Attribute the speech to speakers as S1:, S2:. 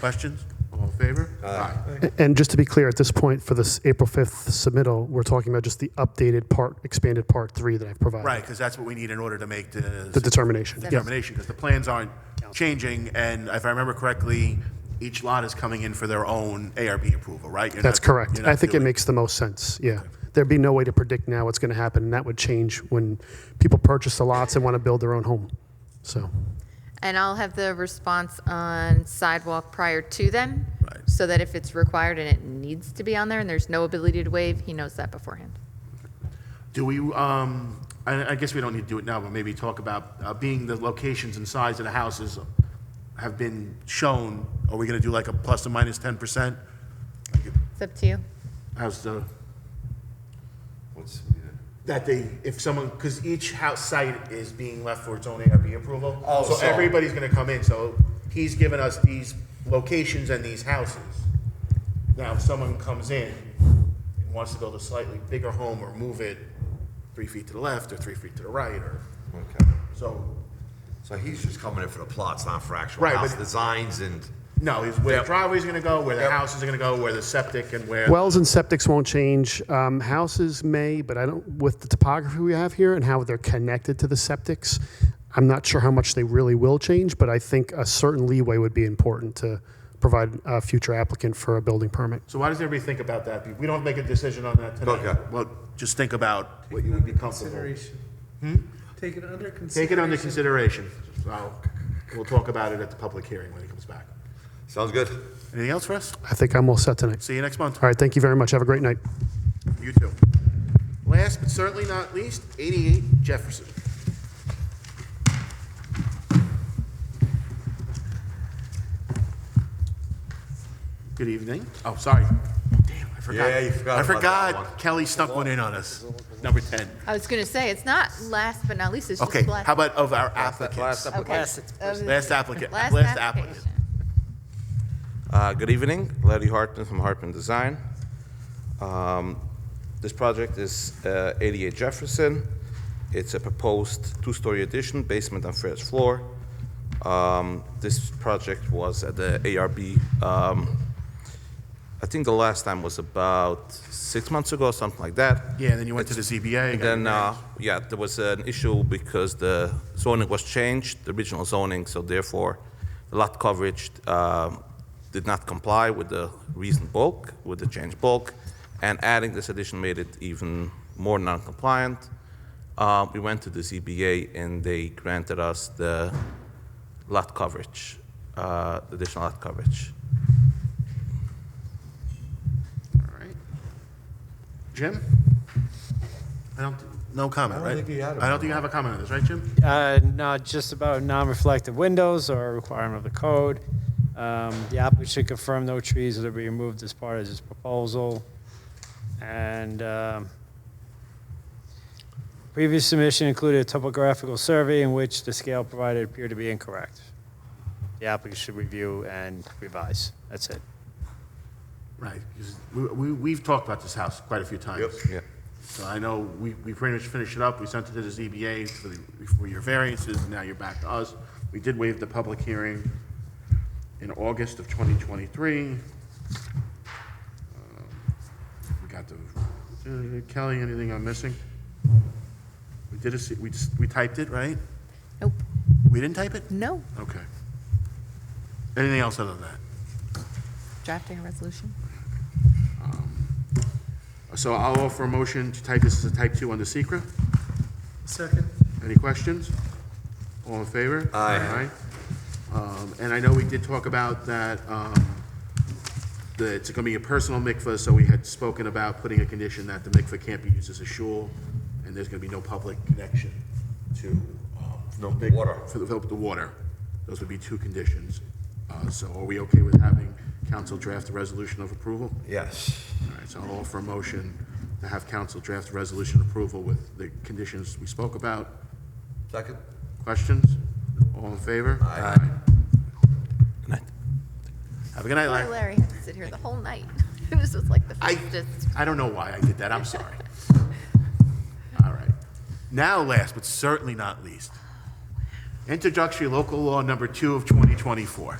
S1: Questions? All in favor? Aye.
S2: And just to be clear, at this point, for this April 5th submittal, we're talking about just the updated part, expanded Part 3 that I've provided.
S1: Right, because that's what we need in order to make
S2: The
S1: the
S2: determination. Yes.
S1: determination, because the plans aren't changing, and if I remember correctly, each lot is coming in for their own ARB approval, right? You're
S2: That's
S1: not-
S2: correct.
S1: you're not
S2: I think it
S1: doing-
S2: makes the most sense, yeah. There'd be no way to predict now what's going to happen, and that would change when people purchase the lots and want to build their own home, so.
S3: And I'll have the response on sidewalk prior to then,
S1: Right.
S3: so that if it's required and it needs to be on there and there's no ability to waive, he knows that beforehand.
S1: Do we, um, I, I guess we don't need to do it now, but maybe talk about, uh, being the locations and size of the houses have been shown, are we gonna do like a plus or minus ten percent?
S3: It's up to you.
S1: How's the,
S4: What's,
S1: that they, if someone, because each house site is being left for its own ARB approval.
S4: Oh,
S1: So
S4: so-
S1: everybody's gonna come in, so he's given us these locations and these houses. Now, if someone comes in and wants to build a slightly bigger home or move it three feet to the left or three feet to the right, or,
S4: okay.
S1: so,
S4: So he's just coming in for the plots, not for actual
S1: Right,
S4: house
S1: but-
S4: designs and,
S1: No, is where the driveway's gonna go, where the
S4: Yep.
S1: houses are gonna go, where the septic and where.
S2: Wells and septics won't change. Um, houses may, but I don't, with the topography we have here and how they're connected to the septics, I'm not sure how much they really will change, but I think a certain leeway would be important to provide a future applicant for a building permit.
S1: So why does everybody think about that? We don't make a decision on that tonight.
S4: Okay.
S1: Well, just think about what you would be comfortable. Hmm?
S5: Consideration. Take it under consideration.
S1: Take it under consideration. So we'll talk about it at the public hearing when he comes back.
S4: sounds good.
S1: Anything else for us?
S2: I think I'm all set tonight.
S1: See you next month.
S2: All right, thank you very much. Have a great night.
S1: You too. Last but certainly not least, 88 Jefferson. Good evening. Oh, sorry. Damn, I forgot.
S4: Yeah, you forgot
S1: I
S4: about that
S1: forgot
S4: one.
S1: Kelly snuck one in on us. Number 10.
S3: I was going to say, it's not last but not least, it's just
S1: Okay,
S3: last.
S1: how about of our applicants?
S3: Okay. Of the-
S1: Last applicant,
S3: Last
S1: last applicant.
S3: application.
S6: Uh, Good evening, Larry Hartman from Hartman Design. Um, This project is uh, 88 Jefferson. It's a proposed two-story addition, basement and first floor. Um, This project was at the ARB, um, I think the last time was about six months ago, something like that.
S1: Yeah, and then you went to the ZBA.
S6: And then, uh, yeah, there was an issue because the zoning was changed, the original zoning, so therefore, the lot coverage um, did not comply with the recent bulk, with the changed bulk, and adding this addition made it even more non-compliant. Uh, We went to the ZBA, and they granted us the lot coverage, uh, additional lot coverage.
S1: All right. Jim? I don't, no comment,
S4: don't
S1: right?
S4: think you had a
S1: I don't think you have a comment on this, right, Jim?
S7: Uh, No, just about non-reflective windows or a requirement of the code. Um, The applicant should confirm no trees will be removed as part of this proposal. And um, previous submission included a topographical survey in which the scale provided appeared to be incorrect. The applicant should review and revise. That's it.
S1: Right, 'cause we, we, we've talked about this house quite a few times.
S6: Yeah.
S1: So I know we, we pretty much finished it up, we sent it to the ZBA for the, for your variances, now you're back to us. We did waive the public hearing in August of twenty twenty-three. Um, We got the, uh, Kelly, anything I'm missing? We did a, se- we, s- we typed it, right?
S3: Nope,
S1: We didn't type it?
S3: no,
S1: Okay. Anything else other than that?
S3: drafting a resolution.
S1: So I'll offer a motion to type this as a type two under secret.
S5: Second.
S1: Any questions? All in favor?
S4: Aye.
S1: Aye. Um, And I know we did talk about that, um, that it's going to be a personal mikvah, so we had spoken about putting a condition that the mikvah can't be used as a shul, and there's going to be no public connection to. um,
S4: No
S1: mik-
S4: Oh, water.
S1: For the, for the water. Those would be two conditions. Uh, So are we okay with having council draft a resolution of approval?
S4: Yes.
S1: All right, so I'll offer a motion to have council draft a resolution approval with the conditions we spoke about.
S4: Second?
S1: Questions? All in favor?
S4: Aye.
S6: Good night.
S1: Have a good night, Larry.
S3: Poor Larry had to sit here the whole night. This was like the
S1: I,
S3: fastest.
S1: I don't know why I did that, I'm sorry. All right. Now, last but certainly not least, introductory local law number two of 2024.